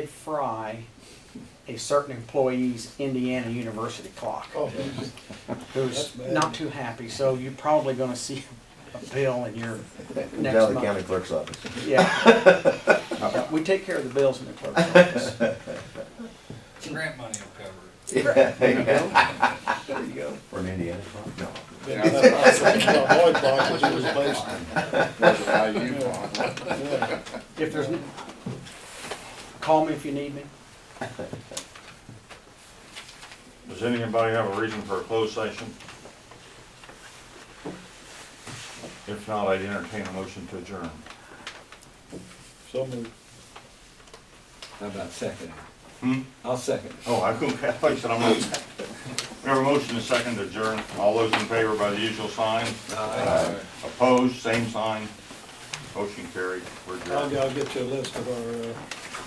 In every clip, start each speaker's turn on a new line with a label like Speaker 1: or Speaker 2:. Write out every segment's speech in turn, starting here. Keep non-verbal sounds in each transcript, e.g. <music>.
Speaker 1: did fry a certain employee's Indiana University clock,
Speaker 2: Oh, that's
Speaker 1: who's
Speaker 2: bad.
Speaker 1: not too happy, so you're probably gonna see a bill in
Speaker 3: <laughs>
Speaker 1: your next
Speaker 3: Down the county
Speaker 1: month.
Speaker 3: clerk's office.
Speaker 1: <laughs>
Speaker 3: <laughs>
Speaker 1: Yeah. Yeah, We take care of the bills in the clerk's office.
Speaker 4: Grant money will cover it.
Speaker 3: <laughs> There you go. From Indiana. No.
Speaker 2: Yeah, that's- that's what my boy thought, which was based- yeah.
Speaker 1: If there's, n- call me if you need me.
Speaker 5: Does anybody have a reason for a closed session? If not, I'd entertain a motion to adjourn.
Speaker 2: So moved.
Speaker 4: How about second?
Speaker 5: Hmm?
Speaker 4: I'll second.
Speaker 5: Oh, I couldn't, I thought you said I'm on. We have a motion to second to adjourn. All those in favor by the usual sign.
Speaker 4: Aye.
Speaker 5: Opposed, same sign. Motion carried. We're
Speaker 2: I'll,
Speaker 5: adjourned.
Speaker 2: I'll get you a list of our, uh,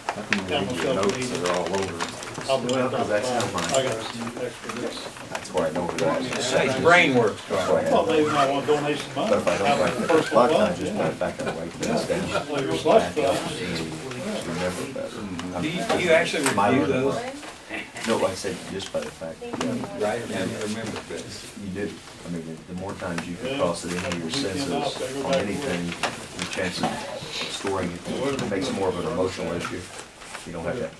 Speaker 3: I can read your notes, they're all over.
Speaker 2: I'll bring
Speaker 3: Well,
Speaker 2: it
Speaker 3: 'cause
Speaker 2: down.
Speaker 3: that's not mine.
Speaker 2: I got some extra bits.
Speaker 3: That's why I know what I was just
Speaker 4: Say,
Speaker 3: saying.
Speaker 4: brain works,
Speaker 3: That's why I
Speaker 4: Carl.
Speaker 3: had-
Speaker 2: Well, maybe I want donation of mine.
Speaker 3: But if I don't like
Speaker 2: Have a
Speaker 3: the
Speaker 2: personal
Speaker 3: clock, I
Speaker 2: one,
Speaker 3: just
Speaker 2: yeah.
Speaker 3: put it back in the white things down.
Speaker 2: Play your slush fund.
Speaker 3: Remember better.
Speaker 4: Do you, do you actually
Speaker 3: My
Speaker 4: review
Speaker 3: learning
Speaker 4: those?
Speaker 3: one. No, I said just by the fact, that
Speaker 4: Right, now you remember this.
Speaker 3: you do. I mean, the more times you can
Speaker 2: Yeah.
Speaker 3: cross it in on your senses on anything, the chances of scoring it makes more of an emotional issue. You don't have that.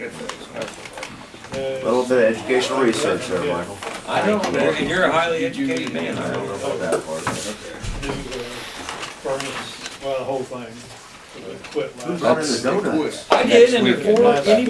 Speaker 3: A
Speaker 2: Uh,
Speaker 3: little bit of educational research there, Michael.
Speaker 4: I know, and you're a highly educated man,
Speaker 3: I don't know
Speaker 4: I
Speaker 3: about that part.
Speaker 2: new, uh, Furnace, well, the whole thing, that quit last.
Speaker 3: Who's running the donuts?
Speaker 4: I did, and before
Speaker 2: Next week.
Speaker 4: anybody